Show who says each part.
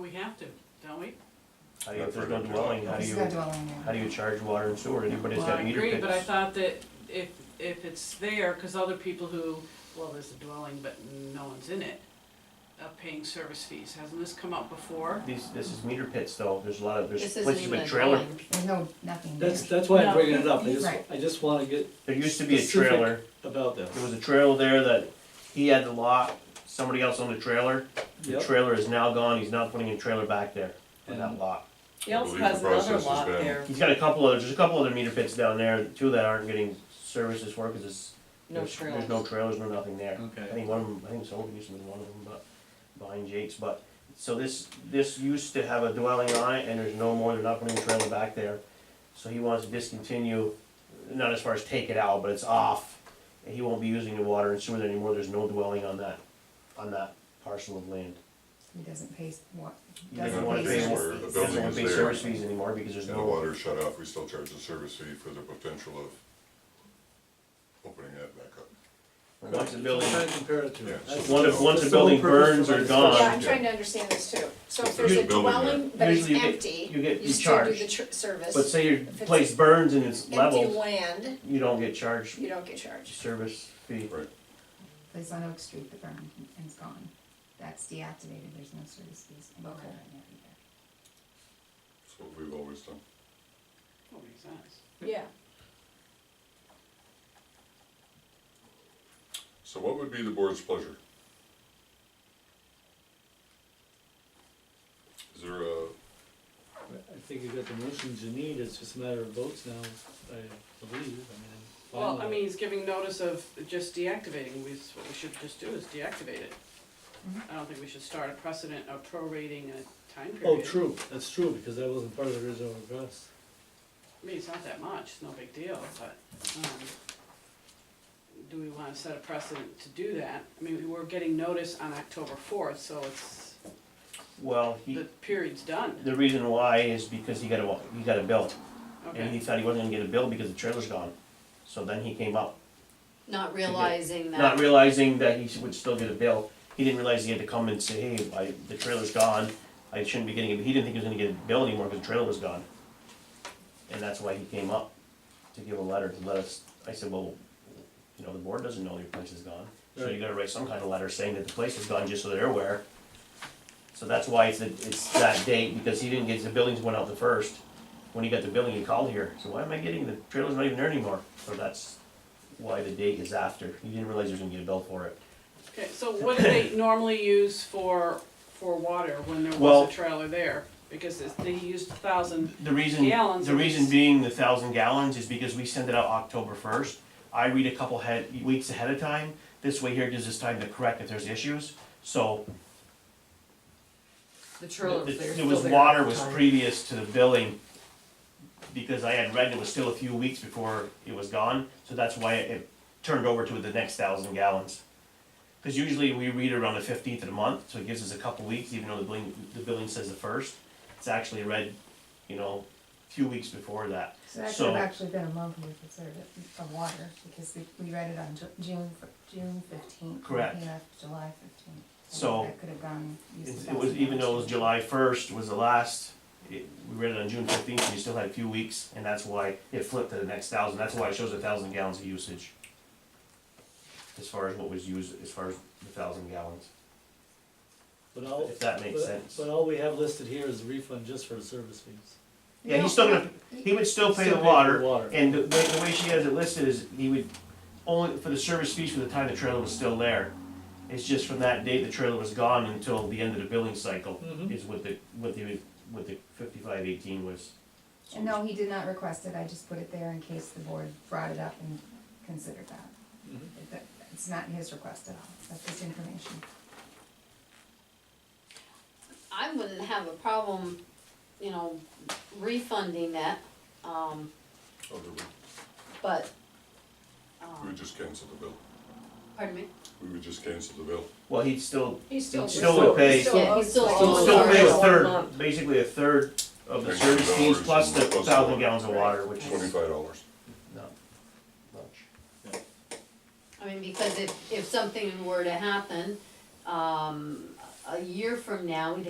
Speaker 1: we have to, don't we?
Speaker 2: How do you, if there's no dwelling, how do
Speaker 3: He's
Speaker 2: you,
Speaker 3: got dwelling
Speaker 2: how
Speaker 3: there.
Speaker 2: do you charge water and sewer, anybody that's
Speaker 1: Well, I
Speaker 2: got meter
Speaker 1: agree,
Speaker 2: pits?
Speaker 1: but I thought that if, if it's there, cause other people who, well, there's a dwelling, but no one's in it, uh, paying service fees, hasn't this come up before?
Speaker 2: These, this is meter pits though, there's a lot of, there's
Speaker 4: This isn't
Speaker 2: places
Speaker 4: even
Speaker 2: with
Speaker 4: a
Speaker 2: trailer,
Speaker 4: dwelling.
Speaker 3: There's no, nothing there.
Speaker 5: That's, that's why
Speaker 1: No.
Speaker 5: I'm bringing it up, I just,
Speaker 3: Right.
Speaker 5: I just wanna get
Speaker 2: there used to be a
Speaker 5: Specific.
Speaker 2: trailer,
Speaker 5: about this.
Speaker 2: there was a trailer there that he had the lot, somebody else owned the trailer. The
Speaker 5: Yep.
Speaker 2: trailer is now gone, he's not putting a trailer back there on that
Speaker 5: And-
Speaker 2: lot.
Speaker 6: He also
Speaker 7: believe the
Speaker 6: has another
Speaker 7: process is
Speaker 6: lot
Speaker 7: bad.
Speaker 6: there,
Speaker 2: He's got a couple other, there's a couple other meter pits down there, two that aren't getting services for, cause it's,
Speaker 6: no
Speaker 2: there's,
Speaker 6: trails.
Speaker 2: there's no trailers, no nothing there. I
Speaker 5: Okay,
Speaker 2: think one of them, I think someone used to be one of them, but behind Jake's, but, so this, this used to have a dwelling on it and there's no more, they're not putting a trailer back there. So he wants to discontinue, not as far as take it out, but it's off. And he won't be using the water and sewer there anymore, there's no dwelling on that, on that parcel of land.
Speaker 3: He doesn't pay s- what,
Speaker 2: He
Speaker 3: doesn't
Speaker 2: doesn't
Speaker 3: pay
Speaker 2: wanna pay more,
Speaker 3: service
Speaker 7: The
Speaker 3: fees.
Speaker 7: bill-
Speaker 2: doesn't wanna
Speaker 7: Building
Speaker 2: pay
Speaker 7: is there.
Speaker 2: service fees anymore because there's
Speaker 7: And the
Speaker 2: no,
Speaker 7: water is shut off, we still charge the service fee for the potential of opening that back up.
Speaker 2: once the
Speaker 5: I'm
Speaker 2: building,
Speaker 5: trying to compare it to.
Speaker 7: Yeah.
Speaker 5: That's-
Speaker 2: once, if- once the building
Speaker 5: Sole purpose
Speaker 2: burns
Speaker 5: for
Speaker 2: or
Speaker 5: my
Speaker 8: Yeah,
Speaker 2: gone,
Speaker 8: I'm trying to understand this too. So if there's
Speaker 2: Usually
Speaker 8: a
Speaker 7: building there.
Speaker 8: dwelling, but it's
Speaker 2: Usually you get-
Speaker 8: empty,
Speaker 2: you get- you
Speaker 8: you still do
Speaker 2: charge.
Speaker 8: the tr- service.
Speaker 2: but say your
Speaker 8: If it's
Speaker 2: place burns and it's
Speaker 8: Empty
Speaker 2: leveled,
Speaker 8: land,
Speaker 2: you don't get charged
Speaker 8: you don't get charged.
Speaker 2: service fee.
Speaker 3: Place on Oak Street, the burn, and it's gone. That's deactivated, there's no service fees. and water
Speaker 8: Okay.
Speaker 3: in there either.
Speaker 7: That's what we've always done.
Speaker 1: That makes sense.
Speaker 8: Yeah.
Speaker 7: So what would be the board's pleasure? Is there a,
Speaker 5: I think you got the motions you need, it's just a matter of votes now, I believe, I mean. I'm fine
Speaker 1: Well,
Speaker 5: with
Speaker 1: I
Speaker 5: it.
Speaker 1: mean, he's giving notice of just deactivating, we, what we should just do is deactivate it. I don't think we should start a precedent of prorating a time
Speaker 5: Oh,
Speaker 1: period.
Speaker 5: true, that's true, because that wasn't part of the original request.
Speaker 1: I mean, it's not that much, it's no big deal, but, um, do we wanna set a precedent to do that? I mean, we're getting notice on October fourth, so it's,
Speaker 2: Well, he,
Speaker 1: the period's done,
Speaker 2: Mm. The reason why is because he got a, he got a bill, and he
Speaker 1: okay?
Speaker 2: thought he wasn't gonna get a bill because the trailer's gone. So then he came up,
Speaker 4: Not realizing that.
Speaker 2: not realizing that he would still get a bill, he didn't realize he had to come and say, hey, I, the trailer's gone, I shouldn't be getting it, he didn't think he was gonna get a bill anymore because the trailer was gone. And that's why he came up, to give a letter to let us, I said, well, you know, the board doesn't know your place is gone, so you
Speaker 5: Right.
Speaker 2: gotta write some kind of letter saying that the place is gone, just so they're aware. So that's why it's, it's that date, because he didn't get, the buildings went out the first. When he got the billing, he called here, so why am I getting, the trailer's not even there anymore, so that's why the date is after, he didn't realize he was gonna get a bill for it.
Speaker 1: Okay, so what do they normally use for, for water when there
Speaker 2: Well-
Speaker 1: was a trailer there? Because it's, they used a thousand,
Speaker 2: The reason,
Speaker 1: Gallons
Speaker 2: the
Speaker 1: at
Speaker 2: reason
Speaker 1: least.
Speaker 2: being the thousand gallons is because we send it out October first. I read a couple head, weeks ahead of time, this way here gives us time to correct if there's issues, so
Speaker 6: The trailers,
Speaker 2: The-
Speaker 6: they're still
Speaker 2: There was
Speaker 6: there.
Speaker 2: water was previous to the billing, because I had read it was still a few weeks before it was gone, so that's why it turned over to the next thousand gallons. Cause usually we read around the fifteenth of the month, so it gives us a couple weeks, even though the billing, the billing says the first, it's actually read, you know, a few weeks before that.
Speaker 3: So that could
Speaker 2: So-
Speaker 3: have actually been a month worth of service, of water, because we, we read it on Ju- June, fir- June fifteenth.
Speaker 2: Correct.
Speaker 3: He left July fifteenth.
Speaker 2: So-
Speaker 3: That could have gone. used
Speaker 2: It
Speaker 3: the
Speaker 2: it was,
Speaker 3: thousand
Speaker 2: even though it was
Speaker 3: dollars.
Speaker 2: July first was the last, it, we read it on June fifteenth, so you still had a few weeks, and that's why it flipped to the next thousand, that's why it shows a thousand gallons of usage. As far as what was used, as far as the thousand gallons,
Speaker 5: But all,
Speaker 2: if that makes
Speaker 5: but-
Speaker 2: sense.
Speaker 5: But all we have listed here is refund just for the service fees.
Speaker 2: Yeah, he's still gonna, he would still pay the
Speaker 5: Still pay for the
Speaker 2: water,
Speaker 5: water.
Speaker 2: and the, the the way she has it listed is, he would, only for the service fees for the time the trailer was still there. It's just from that date the trailer was gone until the end of the billing cycle,
Speaker 5: Mhm.
Speaker 2: is what the, what the, what the fifty-five eighteen was.
Speaker 3: And no, he did not request it, I just put it there in case the board brought it up and considered that. It- that- It's not his request at all, that's just information.
Speaker 4: I wouldn't have a problem, you know, refunding that, um,
Speaker 7: other way?
Speaker 4: but,
Speaker 7: We
Speaker 4: um,
Speaker 7: would oh, just cancel the bill.
Speaker 4: pardon me?
Speaker 7: We would just cancel the bill.
Speaker 2: Well, he'd still
Speaker 8: He's still.
Speaker 2: He's still would pay-
Speaker 8: still
Speaker 4: Yeah, he
Speaker 8: owes
Speaker 4: still
Speaker 8: the-
Speaker 2: Well, it's
Speaker 4: owes Oh,
Speaker 2: still
Speaker 4: sorry.
Speaker 2: pay a
Speaker 4: One
Speaker 2: third,
Speaker 6: month.
Speaker 2: basically a third of the
Speaker 7: Thanks,
Speaker 2: service fees
Speaker 7: dollars,
Speaker 2: plus the
Speaker 7: plus
Speaker 2: thousand
Speaker 7: water.
Speaker 2: gallons of water, which is
Speaker 7: Twenty-five dollars.
Speaker 2: not much.
Speaker 4: I mean, because if, if something were to happen, um, a year from now, we'd